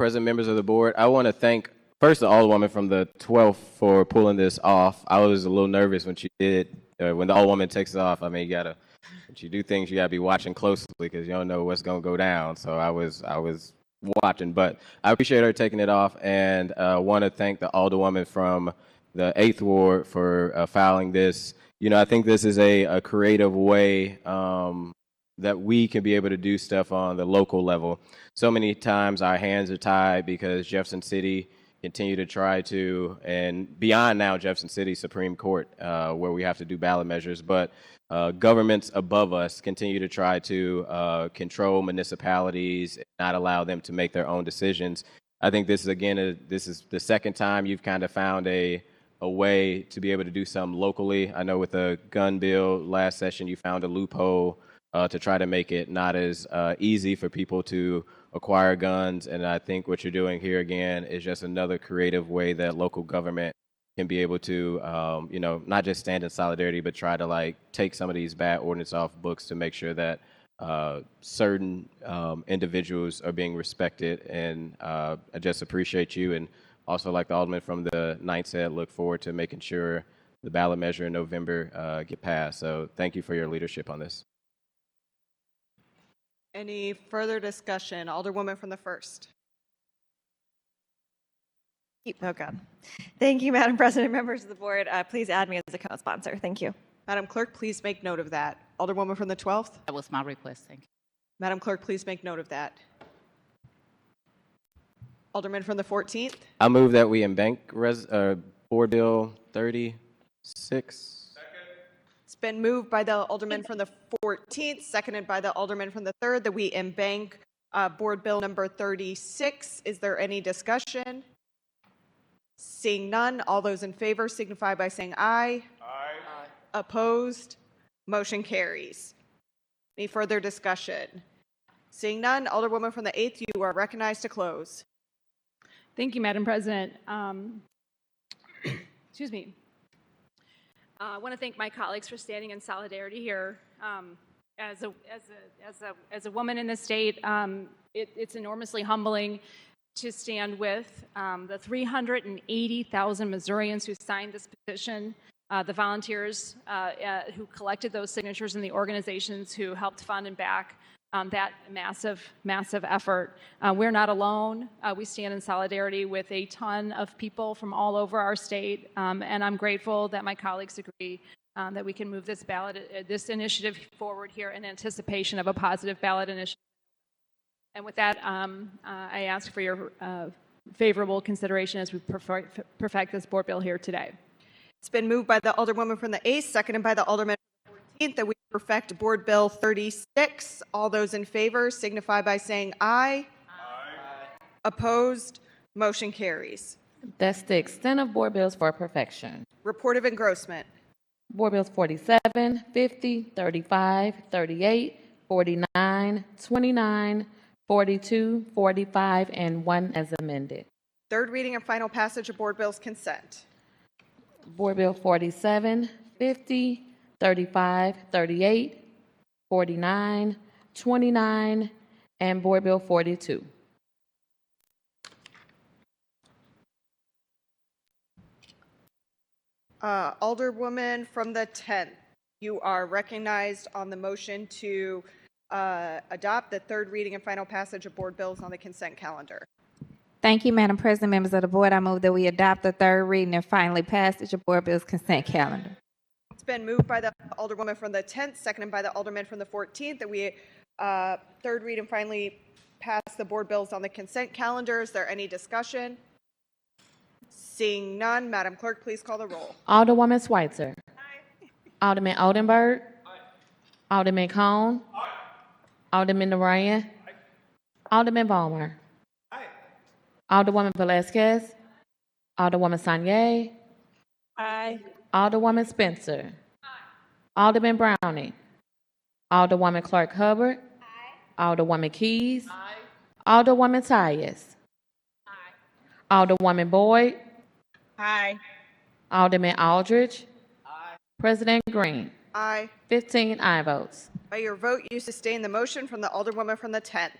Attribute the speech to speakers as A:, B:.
A: present members of the board. I want to thank first the Alderwoman from the 12th for pulling this off. I was a little nervous when she did, uh, when the Alderwoman takes it off. I mean, you gotta, when you do things, you gotta be watching closely because you don't know what's gonna go down. So I was, I was watching, but I appreciate her taking it off and uh, want to thank the Alderwoman from the 8th Ward for uh, filing this. You know, I think this is a, a creative way um, that we can be able to do stuff on the local level. So many times our hands are tied because Jefferson City continue to try to, and beyond now Jefferson City Supreme Court, uh, where we have to do ballot measures, but uh, governments above us continue to try to uh, control municipalities, not allow them to make their own decisions. I think this is again, a, this is the second time you've kind of found a a way to be able to do something locally. I know with the gun bill last session, you found a loophole uh, to try to make it not as uh, easy for people to acquire guns. And I think what you're doing here again is just another creative way that local government can be able to, um, you know, not just stand in solidarity, but try to like take some of these bad ordinance off books to make sure that uh, certain um, individuals are being respected. And uh, I just appreciate you. And also, like the alderman from the ninth said, look forward to making sure the ballot measure in November uh, get passed. So thank you for your leadership on this.
B: Any further discussion? Alderwoman from the first.
C: Oh, God. Thank you, Madam President, members of the board. Uh, Please add me as a co-sponsor. Thank you.
B: Madam Clerk, please make note of that. Alderwoman from the 12th.
D: That was my request, thank you.
B: Madam Clerk, please make note of that. Alderman from the 14th.
A: I move that we embank res, uh, board bill thirty-six.
B: It's been moved by the Alderman from the 14th, seconded by the Alderman from the 3rd, that we embank uh, Board Bill Number 36. Is there any discussion? Seeing none, all those in favor signify by saying aye. Aye. Opposed? Motion carries. Any further discussion? Seeing none, Alderwoman from the 8th, you are recognized to close.
E: Thank you, Madam President. Um, excuse me. Uh, I want to thank my colleagues for standing in solidarity here. Um, as a as a as a as a woman in the state, um, it, it's enormously humbling to stand with um, the 380,000 Missourians who signed this petition, uh, the volunteers uh, uh, who collected those signatures, and the organizations who helped fund and back um, that massive, massive effort. Uh, we're not alone. Uh, we stand in solidarity with a ton of people from all over our state, um, and I'm grateful that my colleagues agree um, that we can move this ballot, uh, this initiative forward here in anticipation of a positive ballot initiative. And with that, um, uh, I ask for your uh, favorable consideration as we perfect, perfect this board bill here today.
B: It's been moved by the Alderwoman from the 8th, seconded by the Alderman from the 14th, that we perfect Board Bill 36. All those in favor signify by saying aye. Aye. Opposed? Motion carries.
F: That's the extent of board bills for perfection.
B: Report of engrossment.
F: Board bills 47, 50, 35, 38, 49, 29, 42, 45, and 1 as amended.
B: Third reading and final passage of Board Bills Consent.
F: Board Bill 47, 50, 35, 38, 49, 29, and Board Bill 42.
B: Uh, Alderwoman from the 10th, you are recognized on the motion to uh, adopt the third reading and final passage of Board Bills on the consent calendar.
G: Thank you, Madam President, members of the board. I move that we adopt the third reading and finally passage of Board Bills Consent Calendar.
B: It's been moved by the Alderwoman from the 10th, seconded by the Alderman from the 14th, that we, uh, third read and finally pass the board bills on the consent calendar. Is there any discussion? Seeing none, Madam Clerk, please call the roll.
F: Alderwoman Schweitzer. Alderman Oldenburg. Alderman Cone. Alderman Ryan. Alderman Ballmer. Alderwoman Velazquez. Alderwoman Sanye. Alderwoman Spencer. Alderman Browning. Alderwoman Clark Hubbard. Alderwoman Keys. Alderwoman Tyus. Alderwoman Boyd. Alderman Aldridge. President Green.
B: Aye.
F: 15 aye votes.
B: By your vote, you sustain the motion from the Alderwoman from the 10th.